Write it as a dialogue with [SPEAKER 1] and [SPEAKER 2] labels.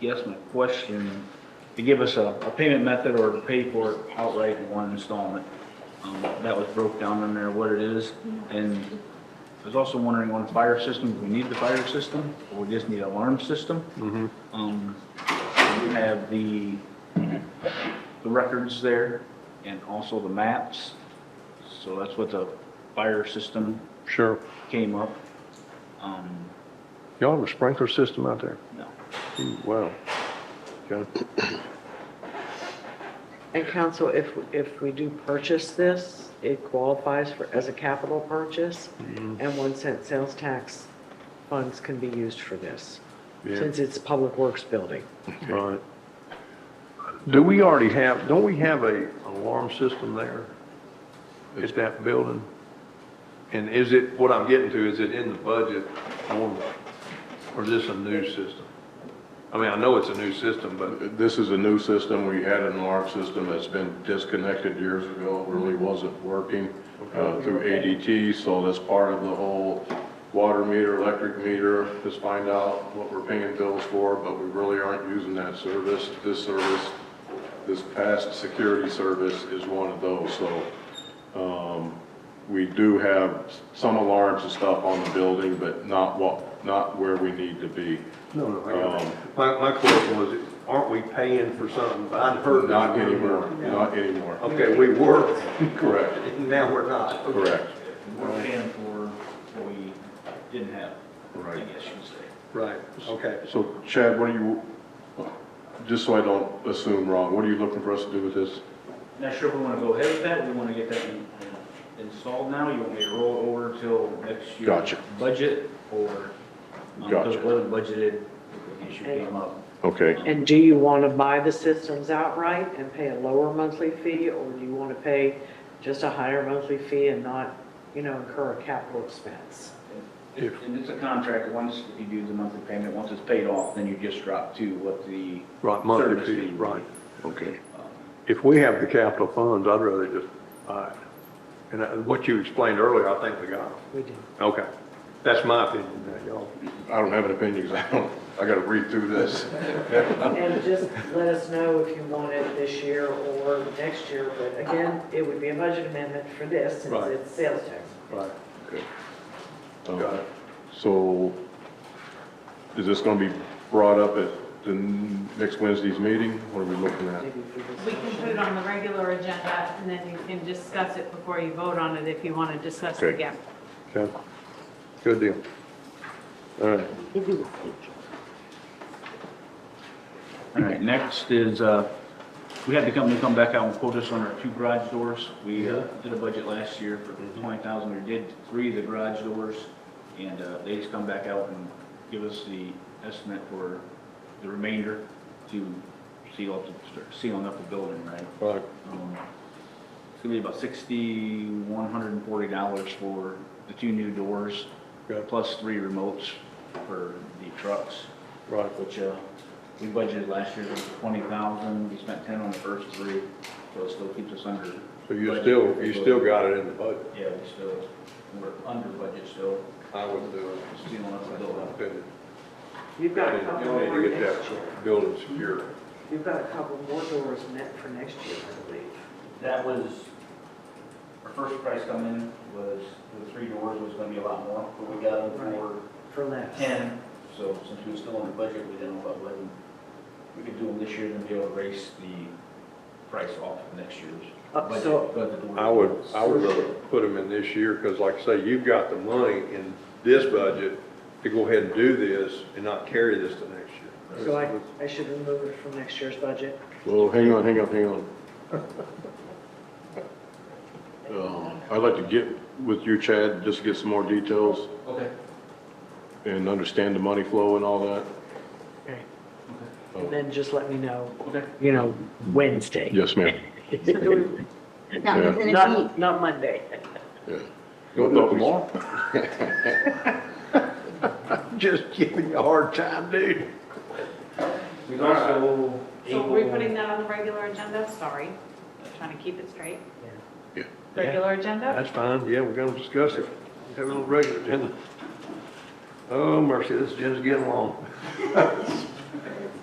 [SPEAKER 1] guess my question, to give us a, a payment method or to pay for it outright in one installment. Um, that was broke down in there what it is, and I was also wondering on fire system, do we need the fire system, or we just need alarm system? Um, you have the, the records there, and also the maps, so that's what the fire system
[SPEAKER 2] Sure.
[SPEAKER 1] came up. Um,
[SPEAKER 2] Y'all have a sprinkler system out there?
[SPEAKER 1] no.
[SPEAKER 2] Wow. Okay.
[SPEAKER 3] And council, if, if we do purchase this, it qualifies for, as a capital purchase,
[SPEAKER 2] Mm-hmm.
[SPEAKER 3] and one cent sales tax funds can be used for this,
[SPEAKER 2] Yeah.
[SPEAKER 3] since it's a public works building.
[SPEAKER 2] Right. Do we already have, don't we have a alarm system there? At that building? And is it, what I'm getting to, is it in the budget normally? Or is this a new system? I mean, I know it's a new system, but
[SPEAKER 4] This is a new system. We had an alarm system that's been disconnected years ago. It really wasn't working uh, through ADT, so that's part of the whole water meter, electric meter, just find out what we're paying bills for, but we really aren't using that service. This service, this past security service is one of those, so um, we do have some alarms and stuff on the building, but not what, not where we need to be. Um,
[SPEAKER 5] No, no, I got it. My, my question was, aren't we paying for something? I'd heard. that
[SPEAKER 4] Not
[SPEAKER 5] we were.
[SPEAKER 4] anymore, not anymore.
[SPEAKER 5] Okay, we were,
[SPEAKER 4] Correct.
[SPEAKER 5] and now we're not. Okay.
[SPEAKER 4] Correct.
[SPEAKER 1] We're paying for what we didn't have, I
[SPEAKER 4] Right.
[SPEAKER 1] guess you'd say.
[SPEAKER 5] Right, okay.
[SPEAKER 4] So Chad, what are you, just so I don't assume wrong, what are you looking for us to do with this?
[SPEAKER 1] Not sure if we want to go ahead with that, we want to get that in- installed now, you want me to roll it over till next year?
[SPEAKER 4] Gotcha.
[SPEAKER 1] Budget, or? Because
[SPEAKER 4] Gotcha.
[SPEAKER 1] it wasn't budgeted, the issue came up.
[SPEAKER 4] Okay.
[SPEAKER 3] And do you want to buy the systems outright and pay a lower monthly fee, or do you want to pay just a higher monthly fee and not, you know, incur a capital expense?
[SPEAKER 2] If-
[SPEAKER 1] And it's a contract, once you do the monthly payment, once it's paid off, then you just drop to what the.
[SPEAKER 2] Right, monthly
[SPEAKER 1] service
[SPEAKER 2] fee,
[SPEAKER 1] would be.
[SPEAKER 2] right. Okay.
[SPEAKER 1] Um,
[SPEAKER 2] If we have the capital funds, I'd rather just buy it. And I- what you explained earlier, I think we got it.
[SPEAKER 3] We do.
[SPEAKER 2] Okay. That's my opinion, now, y'all.
[SPEAKER 4] I don't have an opinion because I don't, I gotta read through this.
[SPEAKER 3] And just let us know if you want it this year or next year, but again, it would be a budget amendment for this, since
[SPEAKER 2] Right.
[SPEAKER 3] it's sales tax.
[SPEAKER 2] Right. Got
[SPEAKER 4] Uh,
[SPEAKER 2] it.
[SPEAKER 4] So is this gonna be brought up at the next Wednesday's meeting? What are we looking at?
[SPEAKER 3] Maybe for this
[SPEAKER 6] We can put it on the regular agenda, and then you can discuss it before you vote on it if you want to discuss it
[SPEAKER 4] Okay.
[SPEAKER 6] again.
[SPEAKER 2] Okay. Good deal. All right.
[SPEAKER 1] All right, next is, uh, we had the company come back out and quote us on our two garage doors. We uh, did a budget last year for 20,000, we did three of the garage doors, and uh, they just come back out and give us the estimate for the remainder to seal up, the- start sealing up the building, right?
[SPEAKER 2] Right.
[SPEAKER 1] Um, It's gonna be about $6,140 for the two new doors,
[SPEAKER 2] Okay.
[SPEAKER 1] plus three remotes for the trucks
[SPEAKER 2] Right.
[SPEAKER 1] which, uh, we budgeted last year twenty thousand, we spent ten on the first three, so it still keeps us under.
[SPEAKER 2] So you
[SPEAKER 1] budget.
[SPEAKER 2] still, you still got it in the budget.
[SPEAKER 1] Yeah, we still, we're under budget still,
[SPEAKER 2] I uh, wouldn't do it.
[SPEAKER 1] still on the
[SPEAKER 2] That's my
[SPEAKER 1] build
[SPEAKER 2] opinion.
[SPEAKER 3] You've got a couple
[SPEAKER 2] You'll need
[SPEAKER 3] more
[SPEAKER 2] to get
[SPEAKER 3] next year.
[SPEAKER 2] that building secure.
[SPEAKER 3] You've got a couple more doors net for next year, I believe.
[SPEAKER 1] That was, our first price come in was, the three doors was gonna be a lot more, but we got them for
[SPEAKER 3] for less.
[SPEAKER 1] ten, so since we were still under budget, we didn't know about when we could do them this year and be able to raise the price off of next year's.
[SPEAKER 3] Up,
[SPEAKER 1] budget,
[SPEAKER 3] so-
[SPEAKER 1] but the doors-
[SPEAKER 2] I would, I would rather put them in this year, because like I say, you've got the money in this budget to go ahead and do this and not carry this to next year.
[SPEAKER 3] So I, I should remove it from next year's budget.
[SPEAKER 4] Well, hang on, hang on, hang on. Um, I'd like to get with you, Chad, just to get some more details
[SPEAKER 1] Okay.
[SPEAKER 4] and understand the money flow and all that.
[SPEAKER 3] Okay.
[SPEAKER 4] Oh.
[SPEAKER 3] And then just let me know,
[SPEAKER 1] Okay.
[SPEAKER 3] you know, Wednesday.
[SPEAKER 4] Yes, ma'am.
[SPEAKER 7] So do we, that means in a week,
[SPEAKER 3] Not, not Monday.
[SPEAKER 4] Don't do it tomorrow?
[SPEAKER 2] Just giving you a hard time, dude.
[SPEAKER 1] We've also
[SPEAKER 6] So we're
[SPEAKER 1] able-
[SPEAKER 6] putting that on the regular agenda, sorry, trying to keep it straight.
[SPEAKER 4] Yeah.
[SPEAKER 6] Regular agenda?
[SPEAKER 2] That's fine, yeah, we're gonna discuss it. Have a little regular agenda. Oh mercy, this agenda's getting long.